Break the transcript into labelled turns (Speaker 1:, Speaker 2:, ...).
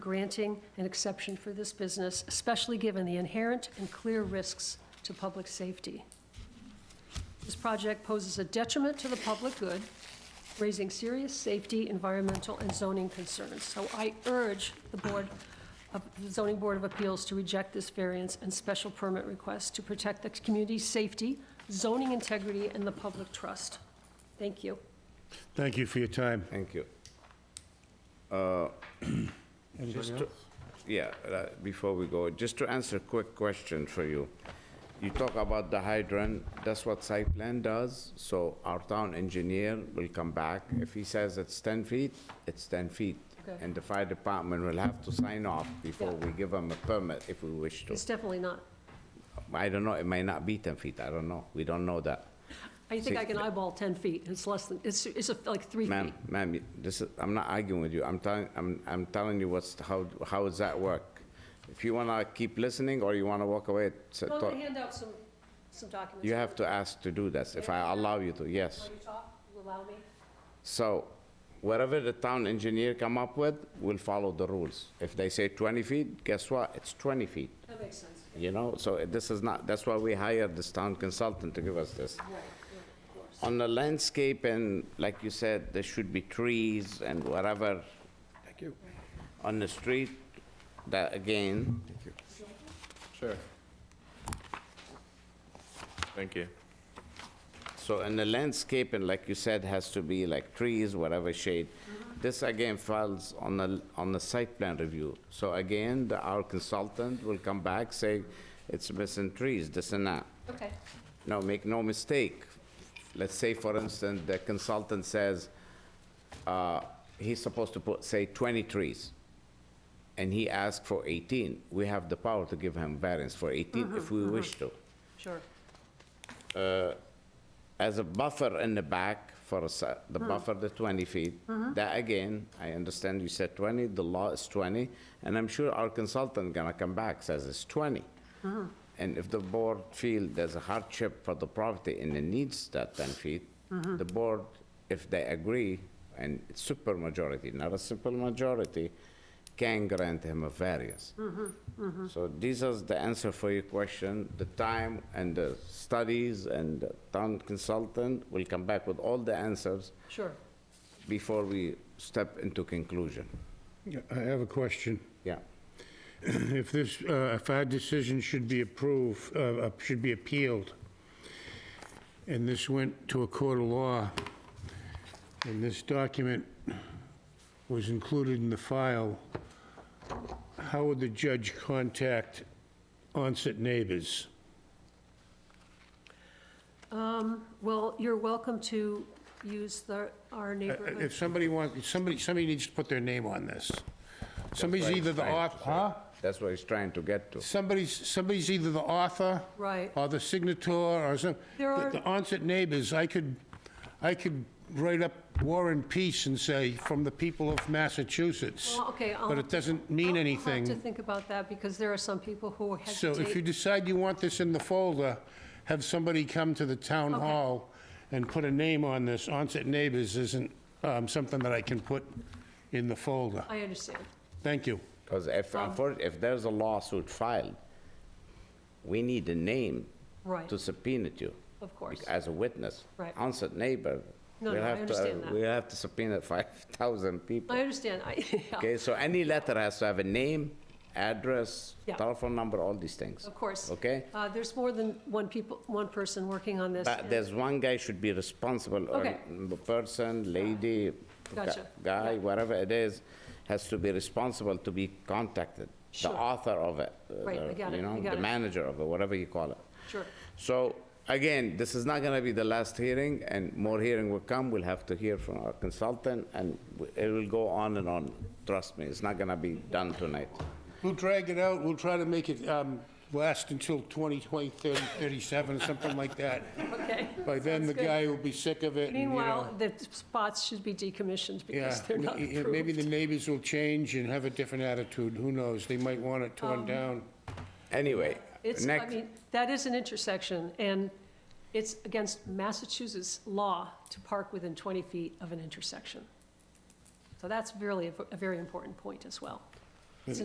Speaker 1: granting an exception for this business, especially given the inherent and clear risks to public safety. This project poses a detriment to the public good, raising serious safety, environmental, and zoning concerns. So I urge the Board of, the Zoning Board of Appeals to reject this variance and special permit request to protect the community's safety, zoning integrity, and the public trust. Thank you.
Speaker 2: Thank you for your time.
Speaker 3: Thank you.
Speaker 2: Uh, Anything else?
Speaker 3: Yeah, uh, before we go, just to answer a quick question for you. You talk about the hydrant, that's what site plan does, so our town engineer will come back. If he says it's 10 feet, it's 10 feet.
Speaker 1: Okay.
Speaker 3: And the fire department will have to sign off before
Speaker 1: Yeah.
Speaker 3: we give them a permit if we wish to.
Speaker 1: It's definitely not.
Speaker 3: I don't know, it may not be 10 feet, I don't know, we don't know that.
Speaker 1: I think I can eyeball 10 feet. It's less than, it's, it's like three feet.
Speaker 3: Ma'am, ma'am, you- this is, I'm not arguing with you, I'm telling, I'm, I'm telling you what's, how, how does that work? If you wanna keep listening or you wanna walk away, it's a
Speaker 1: Well,
Speaker 3: thought.
Speaker 1: they hand out some, some documents.
Speaker 3: You have to ask to do this, if I allow you to, yes.
Speaker 1: Will you talk? Will you allow me?
Speaker 3: So whatever the town engineer come up with, we'll follow the rules. If they say 20 feet, guess what? It's 20 feet,
Speaker 1: That makes sense.
Speaker 3: you know? So uh, this is not, that's why we hired this town consultant to give us this.
Speaker 1: Right, yeah, of course.
Speaker 3: On the landscape and, like you said, there should be trees and whatever. Thank you. On the street, that again,
Speaker 4: Sure. Thank you.
Speaker 3: So, and the landscape, and like you said, has to be like trees, whatever shade.
Speaker 1: Mm-hmm.
Speaker 3: This again falls on the, on the site plan review. So again, the- our consultant will come back, say, it's missing trees, this and that.
Speaker 1: Okay,
Speaker 3: Now, make no mistake, let's say, for instance, the consultant says, uh, he's supposed to put, say, 20 trees, and he asked for 18. We have the power to give him variance for 18 if we wish to
Speaker 1: sure.
Speaker 3: as a buffer in the back for a se- the buffer, the 20 feet. That again, I understand you said 20, the law is 20, and I'm sure our consultant gonna come back, says it's 20. And if the board feel there's a hardship for the property and it needs that 10 feet, the board, if they agree, and it's super majority, not a simple majority, can grant him a variance. So these are the answer for your question. The time and the studies and the town consultant will come back with all the answers
Speaker 1: Sure.
Speaker 3: before we step into conclusion.
Speaker 2: Yeah, I have a question.
Speaker 3: Yeah.
Speaker 2: If this, uh, if our decision should be approved, uh, uh, should be appealed, and this went to a court of law, and this document was included in the file, how would the judge contact onset neighbors?
Speaker 1: Well, you're welcome to use the, our
Speaker 2: Uh,
Speaker 1: neighborhood.
Speaker 2: If somebody wants, if somebody, somebody needs to put their name on this. Somebody's
Speaker 3: Right,
Speaker 2: either the
Speaker 3: right,
Speaker 2: author, huh?
Speaker 3: That's what he's trying to get to.
Speaker 2: Somebody's, somebody's either the author.
Speaker 1: Right.
Speaker 2: Or the signator or some.
Speaker 1: There
Speaker 2: the-
Speaker 1: are-
Speaker 2: The onset neighbors, I could, I could write up War and Peace and say, from the people of Massachusetts.
Speaker 1: Well, okay, I'll
Speaker 2: But
Speaker 1: have
Speaker 2: it
Speaker 1: to-
Speaker 2: doesn't mean
Speaker 1: I'll have to
Speaker 2: anything.
Speaker 1: think about that because there are some people who
Speaker 2: So
Speaker 1: hesitate.
Speaker 2: if you decide you want this in the folder, have somebody come to the town
Speaker 1: Okay.
Speaker 2: hall and put a name on this. Onset neighbors isn't um, something that I can put in the folder.
Speaker 1: I understand.
Speaker 2: Thank you.
Speaker 3: Because if, unfor- if there's a lawsuit filed, we need a name
Speaker 1: Right,
Speaker 3: to subpoena you
Speaker 1: of course.
Speaker 3: as a witness.
Speaker 1: Right.
Speaker 3: Onset neighbor.
Speaker 1: No,
Speaker 3: we'll
Speaker 1: no, I
Speaker 3: have to- uh,
Speaker 1: understand that.
Speaker 3: We'll have to subpoena 5,000 people.
Speaker 1: I understand. I, yeah,
Speaker 3: Okay, so any letter has to have a name, address,
Speaker 1: Yeah.
Speaker 3: telephone number, all these things.
Speaker 1: of course.
Speaker 3: Okay?
Speaker 1: Uh, there's more than one people, one person working on this.
Speaker 3: But
Speaker 1: and-
Speaker 3: there's one guy should be responsible, or
Speaker 1: Okay.
Speaker 3: m- person, lady, gu-
Speaker 1: Gotcha.
Speaker 3: guy,
Speaker 1: Yeah.
Speaker 3: whatever it is, has to be responsible to be contacted. The
Speaker 1: Sure.
Speaker 3: author of it. uh,
Speaker 1: Right, I
Speaker 3: the-
Speaker 1: got it,
Speaker 3: You
Speaker 1: I
Speaker 3: know,
Speaker 1: got
Speaker 3: the
Speaker 1: it.
Speaker 3: manager of it, whatever you call it.
Speaker 1: Sure.
Speaker 3: So, again, this is not gonna be the last hearing, and more hearing will come, we'll have to hear from our consultant, and w- it will go on and on, trust me, it's not gonna be done tonight.
Speaker 2: We'll drag it out, we'll try to make it um, last until 2020, 30, 37, something like that.
Speaker 1: Okay.
Speaker 2: By then,
Speaker 1: Sounds
Speaker 2: the
Speaker 1: good.
Speaker 2: guy will be sick of it. and, you
Speaker 1: Meanwhile,
Speaker 2: know,
Speaker 1: the spots should be decommissioned
Speaker 2: yeah,
Speaker 1: because they're not
Speaker 2: y- y- Maybe the
Speaker 1: approved.
Speaker 2: neighbors will change and have a different attitude, who knows? They might want it
Speaker 1: Um,
Speaker 2: torn down.
Speaker 3: Anyway,
Speaker 1: It's, I
Speaker 3: next,
Speaker 1: mean, that is an intersection, and it's against Massachusetts law to park within 20 feet of an intersection. So that's really a v- a very important point as well.